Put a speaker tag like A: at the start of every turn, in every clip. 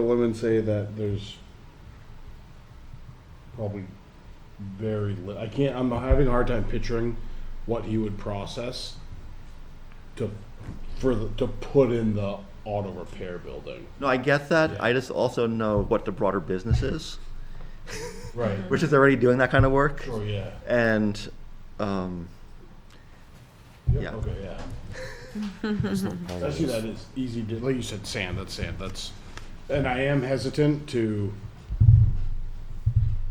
A: The women say that there's probably very li- I can't. I'm having a hard time picturing what he would process to for the, to put in the auto repair building.
B: No, I get that.
A: Yeah.
B: I just also know what the broader business is,
A: Right.
B: which is already doing that kind of work.
A: Sure. Oh, Yeah.
B: And, um, Yeah.
A: Okay. Yeah. Especially that is easy to, like you said, sand, that's sand, that's, and I am hesitant to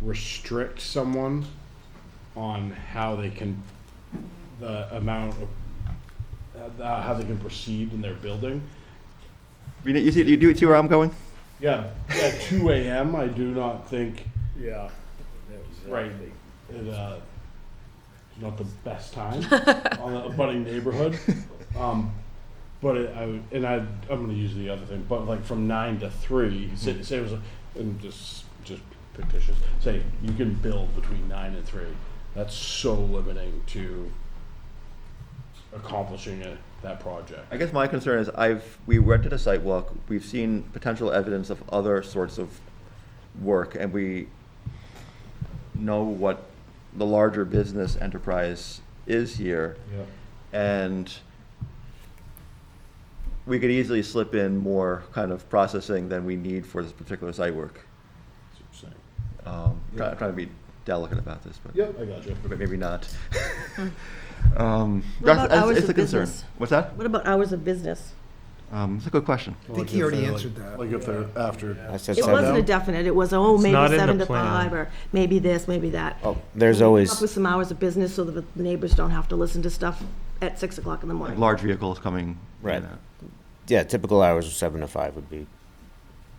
A: restrict someone on how they can, the amount of, uh, how they can proceed in their building.
B: you, know, you see, you do see where I'm going?
A: Yeah, at two AM, I do not think. Yeah. Right. It, uh, it's not the best time on a budding neighborhood. Um, but it, I, would- and I, I'm gonna use the other thing, but like from nine to three, say, say it was, a- and just, just fictitious, say, you can build between nine and three. That's so limiting to accomplishing it, that project.
B: I guess my concern is I've, we went to the site walk, we've seen potential evidence of other sorts of work, and we know what the larger business enterprise is here.
A: Yeah.
B: and we could easily slip in more kind of processing than we need for this particular site work. Um, try-
A: Yeah.
B: I'm trying to be delicate about this, but
A: Yep, I got you.
B: but maybe not. um, that's-
C: What about
B: that's-
C: hours
B: it's
C: of
B: a concern.
C: business?
B: What's that?
C: What about hours of business?
B: Um, it's a good question.
D: I think he already answered that.
A: Like if they're after.
E: I said
C: It wasn't a
E: seven.
C: definite, it was, oh, maybe
F: not in the
C: seven to
F: plan.
C: five, or maybe this, maybe that.
E: Oh, there's
C: Up with
E: always,
C: some hours of business so that the neighbors don't have to listen to stuff at six o'clock in the morning.
B: Large vehicles coming. in
E: Right.
B: and out.
E: yeah, typical hours of seven to five would be,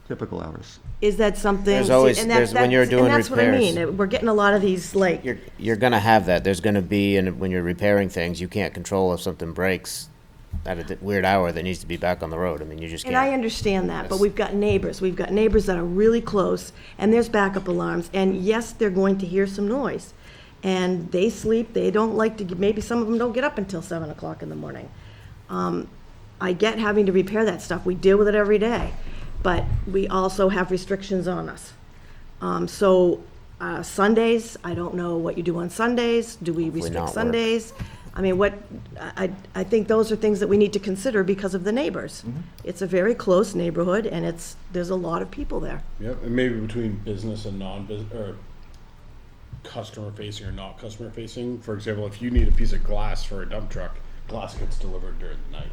B: Typical hours.
C: Is that something?
E: There's always-
C: and that-
E: there's- when you're
C: that's-
E: doing
C: And that's what I
E: repairs.
C: mean, it- we're getting a lot of these, like,
E: you're, you're gonna have that. There's gonna be, and when you're repairing things, you can't control if something breaks at a di- weird hour that needs to be back on the road. I mean, you just
C: and I
E: can't.
C: understand that, but we've got neighbors, we've got neighbors that are really close, and there's backup alarms, and yes, they're going to hear some noise. And they sleep, they don't like to, maybe some of them don't get up until seven o'clock in the morning. I get having to repair that stuff, we deal with it every day, but we also have restrictions on us. Um, so, uh, Sundays, I don't know what you do on Sundays, do we
E: not
C: restrict
E: work.
C: Sundays? I mean, what, I, I I think those are things that we need to consider because of the neighbors.
E: Mm-hmm.
C: It's a very close neighborhood and it's, there's a lot of people there.
A: Yep, and maybe between business and non-business, or customer facing or not customer facing. For example, if you need a piece of glass for a dump truck, glass gets delivered during the night.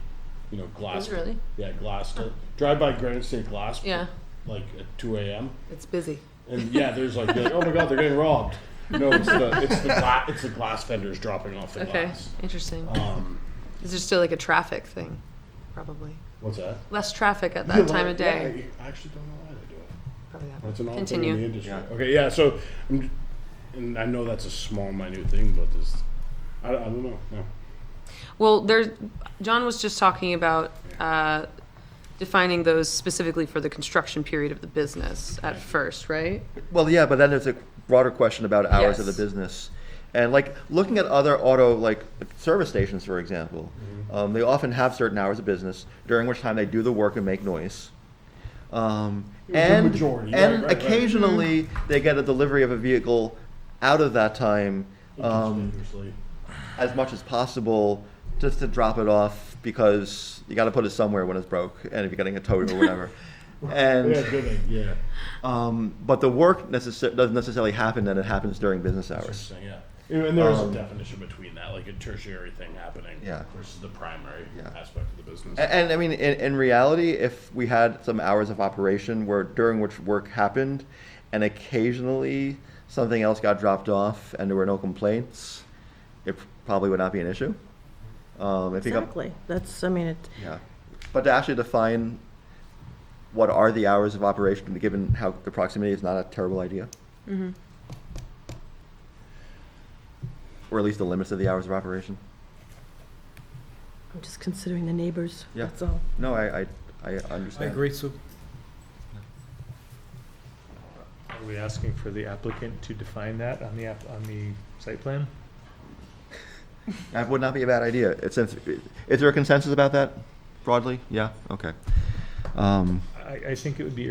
A: You know, glass.
G: Oh, really?
A: Yeah, glass. To, drive by Granite State Glass.
G: Yeah.
A: Like at two a.m.
G: It's busy.
A: And yeah, there's like, you're like, oh my god, they're getting robbed. No, it's the it's the gla- it's the glass vendors dropping off the
G: Okay,
A: glass.
G: interesting.
A: Um,
G: Is there still like a traffic thing? Probably
A: what's that?
G: less traffic at that time of
A: Yeah,
G: day.
A: I actually don't know why they do it.
G: Probably that.
A: That's an odd
G: Continue.
A: thing in the industry. Okay, yeah. So, I'm, and I know that's a small, minute thing, but this, I, I don't know. No.
G: Well, there's John was just talking about uh, defining those specifically for the construction period of the business at first, right?
B: Well, yeah, but then there's a broader question about hours of the
G: Yes.
B: business. And like looking at other auto like service stations, for example,
A: Mm-hmm.
B: um, they often have certain hours of business during which time they do the work and make noise. Um, and
A: majority, right,
B: and
A: right, Mm-hmm. right.
B: occasionally they get a delivery of a vehicle out of that time um,
A: Dangerously.
B: as much as possible, just to drop it off because you got to put it somewhere when it's broke, and if you're getting a towed or whatever. and
A: yeah, good. idea, Yeah.
B: um, but the work necessar- doesn't necessarily happen, and it happens during business hours.
A: Interesting. Yeah. And and there is a definition between that, like a tertiary thing happening
B: Um, Yeah.
A: versus the primary
B: Yeah.
A: aspect of the business.
B: A- And, I mean, in, in reality, if we had some hours of operation where during which work happened, and occasionally something else got dropped off, and there were no complaints, it probably would not be an issue. Um, if you got-
C: Exactly, that's, I mean, it,
B: yeah, but to actually define what are the hours of operation, given how the proximity is not a terrible idea. Or at least the limits of the hours of operation.
C: I'm just considering the neighbors,
B: Yeah.
C: that's all.
B: No, I, I, I
D: I
B: understand.
D: agree, Sue.
F: Are we asking for the applicant to define that on the app, on the site plan?
B: That would not be a bad idea. It since, is there a consensus about that broadly? Yeah, okay. Um,
F: I, I think it would be